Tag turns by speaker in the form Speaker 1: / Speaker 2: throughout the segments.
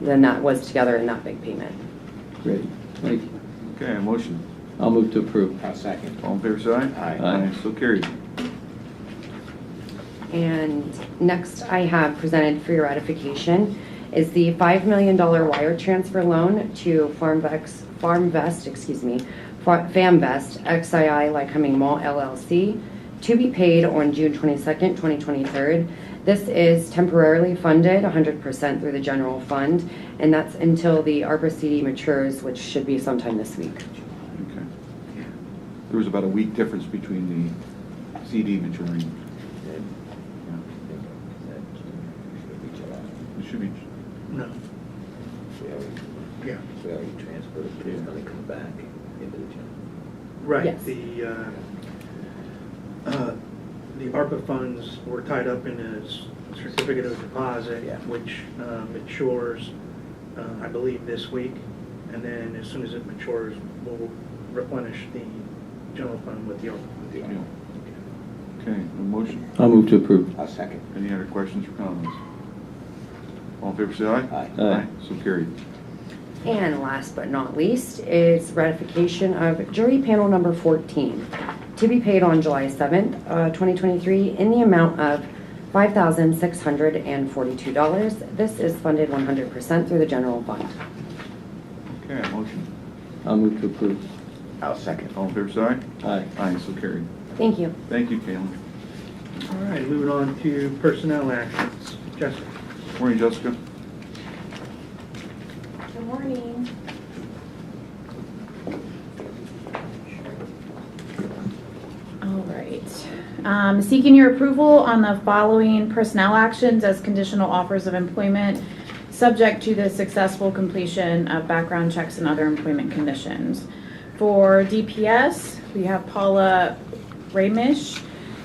Speaker 1: than that was together in that big payment.
Speaker 2: Great, thank you.
Speaker 3: Okay, a motion.
Speaker 2: I'll move to approve.
Speaker 4: I'll second.
Speaker 3: All in favor, say aye.
Speaker 2: Aye.
Speaker 3: So carried.
Speaker 1: And next I have presented for your ratification is the $5 million wire transfer loan to FarmVex, FarmVest, excuse me, Fa- FamVest XII Lycoming Mall LLC to be paid on June 22nd, 2023. This is temporarily funded 100% through the general fund, and that's until the ARPA CD matures, which should be sometime this week.
Speaker 3: Okay. There was about a week difference between the CD maturing. Yeah. It should be,
Speaker 5: No. Yeah.
Speaker 4: We already transferred, but it's gonna come back into the general.
Speaker 5: Right,
Speaker 1: Yes.
Speaker 5: the, uh, uh, the ARPA funds were tied up in a s- certificate of deposit,
Speaker 4: Yeah.
Speaker 5: which uh, matures, uh, I believe, this week. And then as soon as it matures, we'll replenish the general fund with the ARPA.
Speaker 4: with the
Speaker 3: yeah.
Speaker 4: arm.
Speaker 3: Okay, a motion.
Speaker 2: I'll move to approve.
Speaker 4: I'll second.
Speaker 3: Any other questions or comments? All in favor, say aye.
Speaker 4: Aye.
Speaker 2: Aye.
Speaker 3: So carried.
Speaker 1: And last but not least is ratification of jury panel number 14 to be paid on July 7th, uh, 2023, in the amount of $5,642. This is funded 100% through the general fund.
Speaker 3: Okay, a motion.
Speaker 2: I'll move to approve.
Speaker 4: I'll second.
Speaker 3: All in favor, say aye.
Speaker 2: Aye.
Speaker 3: Aye, so carried.
Speaker 1: Thank you.
Speaker 3: Thank you, Caitlin.
Speaker 5: All right, moving on to personnel actions. Jessica?
Speaker 3: Morning, Jessica.
Speaker 6: Good morning. All right. Um, Seeking your approval on the following personnel actions as conditional offers of employment, subject to the successful completion of background checks and other employment conditions. For DPS, we have Paula Ramish,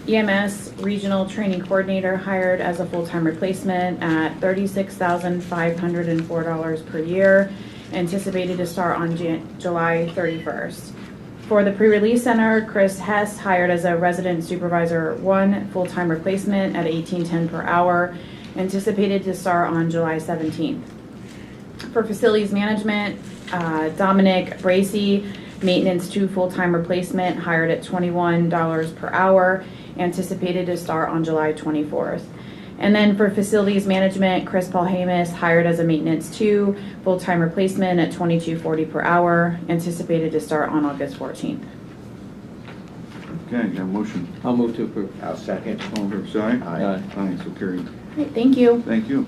Speaker 6: EMS Regional Training Coordinator, hired as a full-time replacement at $36,504 per year, anticipated to start on Jan- July 31st. For the pre-release center, Chris Hess hired as a resident supervisor one, full-time replacement at $18.10 per hour, anticipated to start on July 17th. For facilities management, uh, Dominic Bracy, maintenance two, full-time replacement, hired at $21 per hour, anticipated to start on July 24th. And then for facilities management, Chris Paul Hamus, hired as a maintenance two, full-time replacement at $22.40 per hour, anticipated to start on August 14th.
Speaker 3: Okay, got a motion.
Speaker 2: I'll move to approve.
Speaker 4: I'll second.
Speaker 3: All in favor, say aye.
Speaker 4: Aye.
Speaker 3: Aye, so carried.
Speaker 6: All right, thank you.
Speaker 3: Thank you.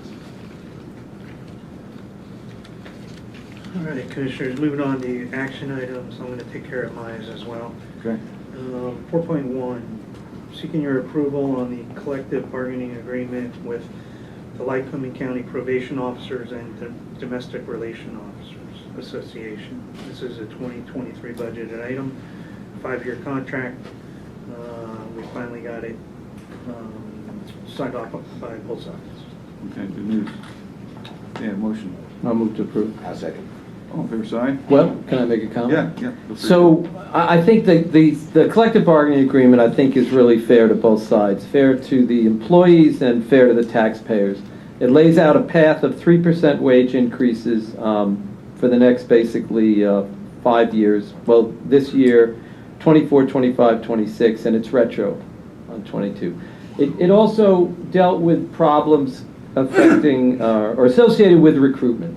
Speaker 5: All right, Commissioners, moving on to action items. I'm going to take care of mine as well.
Speaker 3: Okay.
Speaker 5: Um, 4.1, seeking your approval on the collective bargaining agreement with the Lycoming County Probation Officers and the Domestic Relation Officers Association. This is a 2023 budgeted item, five-year contract. Uh, We finally got it um, signed off by both sides.
Speaker 3: Okay, good news. Yeah, motion.
Speaker 2: I'll move to approve.
Speaker 4: I'll second.
Speaker 3: All in favor, say aye.
Speaker 2: Well, can I make a comment?
Speaker 3: Yeah, yeah. feel free.
Speaker 2: So I I think that the the collective bargaining agreement, I think, is really fair to both sides, fair to the employees and fair to the taxpayers. It lays out a path of 3% wage increases um, for the next basically uh, five years, well, this year, 24, 25, 26, and it's retro on 22. It it also dealt with problems affecting uh, or associated with recruitment.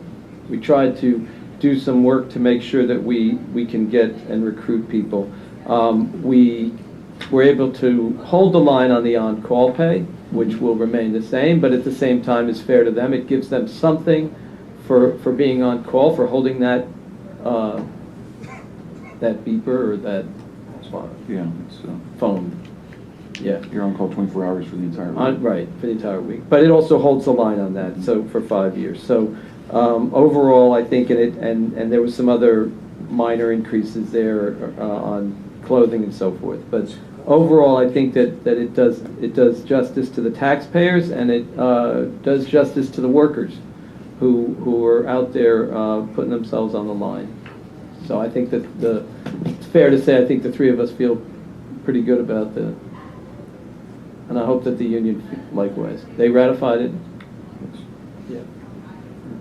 Speaker 2: We tried to do some work to make sure that we, we can get and recruit people. Um, we were able to hold the line on the on-call pay, which will remain the same, but at the same time is fair to them. It gives them something for, for being on call, for holding that, uh, that beeper or that
Speaker 3: Yeah, it's, uh,
Speaker 2: phone. Yeah.
Speaker 3: you're on call 24 hours for the entire week.
Speaker 2: On- Right, for the entire week. But it also holds the line on that, so, for five years. So um, overall, I think, and it, and, and there was some other minor increases there uh, on clothing and so forth. But overall, I think that, that it does, it does justice to the taxpayers, and it uh, does justice to the workers who, who are out there uh, putting themselves on the line. So I think that the, it's fair to say, I think the three of us feel pretty good about the, and I hope that the union likewise. They ratified it.
Speaker 3: Yes.
Speaker 2: Yeah.